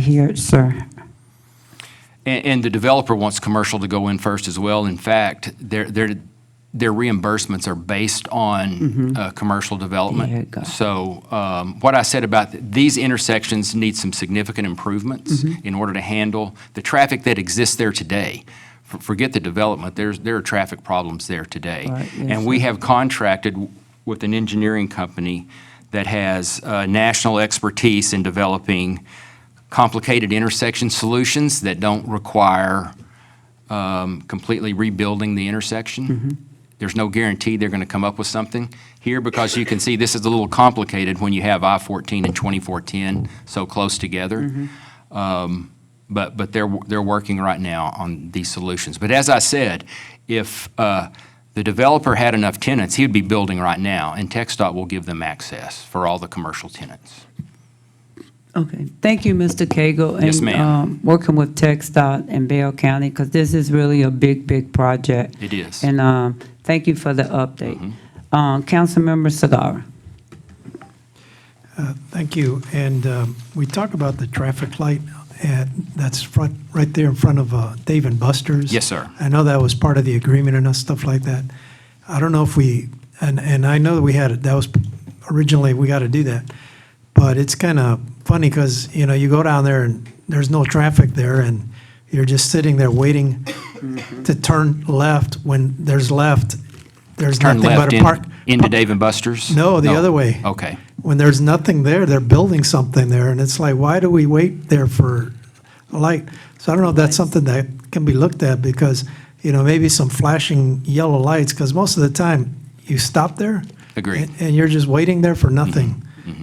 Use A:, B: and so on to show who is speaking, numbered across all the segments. A: hear it, sir.
B: And, and the developer wants commercial to go in first as well. In fact, their, their, their reimbursements are based on, uh, commercial development.
A: There you go.
B: So, um, what I said about, th- these intersections need some significant improvements in order to handle the traffic that exists there today. For- Forget the development, there's, there are traffic problems there today.
A: Right, yes,
B: And we have contracted w- with an engineering company that has, uh, national expertise in developing complicated intersection solutions that don't require um, completely rebuilding the
A: Mm-hmm.
B: intersection. There's no guarantee they're going to come up with something here because you can see this is a little complicated when you have I-14 and 2410 so close
A: Mm-hmm.
B: together. Um, But, but they're, they're working right now on these solutions. But as I said, if uh, the developer had enough tenants, he would be building right now, and TechStop will give them access for all the commercial tenants.
A: Okay, thank you, Mr. Cagle.
B: Yes,
A: and,
B: ma'am.
A: um, Working with TechStop and Bell County, because this is really a big, big project.
B: It is. Mm-hmm.
A: And um, thank you for the update. Um, Councilmember Sadara.
C: Thank you. And um, we talk about the traffic light at, that's front, right there in front of uh, Dave and Buster's.
B: Yes, sir.
C: I know that was part of the agreement and us- stuff like that. I don't know if we, and, and I know that we had, it. that was originally, we got to do that. But it's kind of funny because, you know, you go down there and there's no traffic there and you're just sitting there waiting
B: Mm-hmm.
C: to turn left when there's left, there's
B: Turn
C: nothing but
B: left
C: a park.
B: in- into Dave and Buster's?
C: No, the other way.
B: Okay.
C: When there's nothing there, they're building something there, and it's like, why do we wait there for a light? So I don't know if that's something that can be looked at, because, you know, maybe some flashing yellow lights, because most of the time, you stop there.
B: Agreed.
C: and- And you're just waiting there for nothing.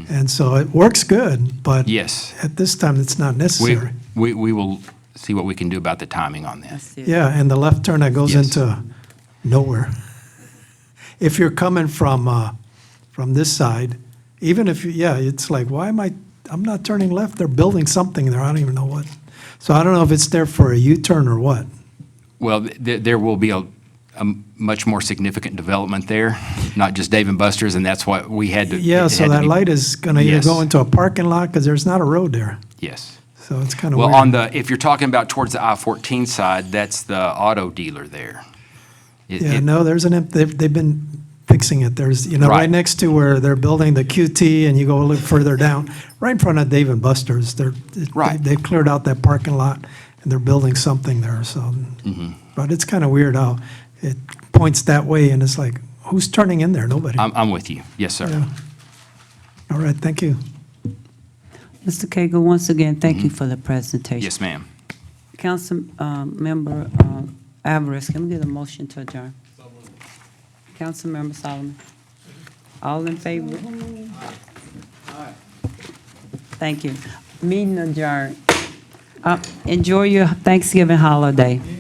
C: And so it works good, but.
B: Yes.
C: At this time, it's not
B: We,
C: necessary.
B: we, we will see what we can do about the timing on that.
C: Yeah, and the left turn that goes
B: Yes.
C: into nowhere. If you're coming from, uh, from this side, even if, you yeah, it's like, why am I, I'm not turning left, they're building something there, I don't even know what. So I don't know if it's there for a U-turn or what.
B: Well, th- there, there will be a, a much more significant development there, not just Dave and Buster's, and that's why we had to.
C: Yeah,
B: it
C: so
B: had to
C: that
B: be-
C: light is gonna either go
B: Yes.
C: into a parking lot, because there's not a road there,
B: Yes.
C: so it's kind of weird.
B: Well, on the, if you're talking about towards the I-14 side, that's the auto dealer there. It-
C: Yeah,
B: it-
C: no, there's an, imp- they've, they've been fixing it. There's, you know,
B: Right.
C: right next to where they're building the QT and you go a little further down, right in front of Dave and Buster's, they're, they-
B: Right.
C: they've cleared out that parking lot and they're building something there, so.
B: Mm-hmm.
C: But it's kind of weird how it points that way and it's like, who's turning in there? Nobody.
B: I'm, I'm with you. Yes, sir.
C: Yeah. All right, thank you.
A: Mr. Cagle, once again, thank you for the presentation.
B: Mm-hmm. Yes, ma'am.
A: Councilmember um, uh, Alvarez, can we get a motion to adjourn? Councilmember Solomon? All in favor? Thank you. Meeting adjourned. Uh, Enjoy your Thanksgiving holiday.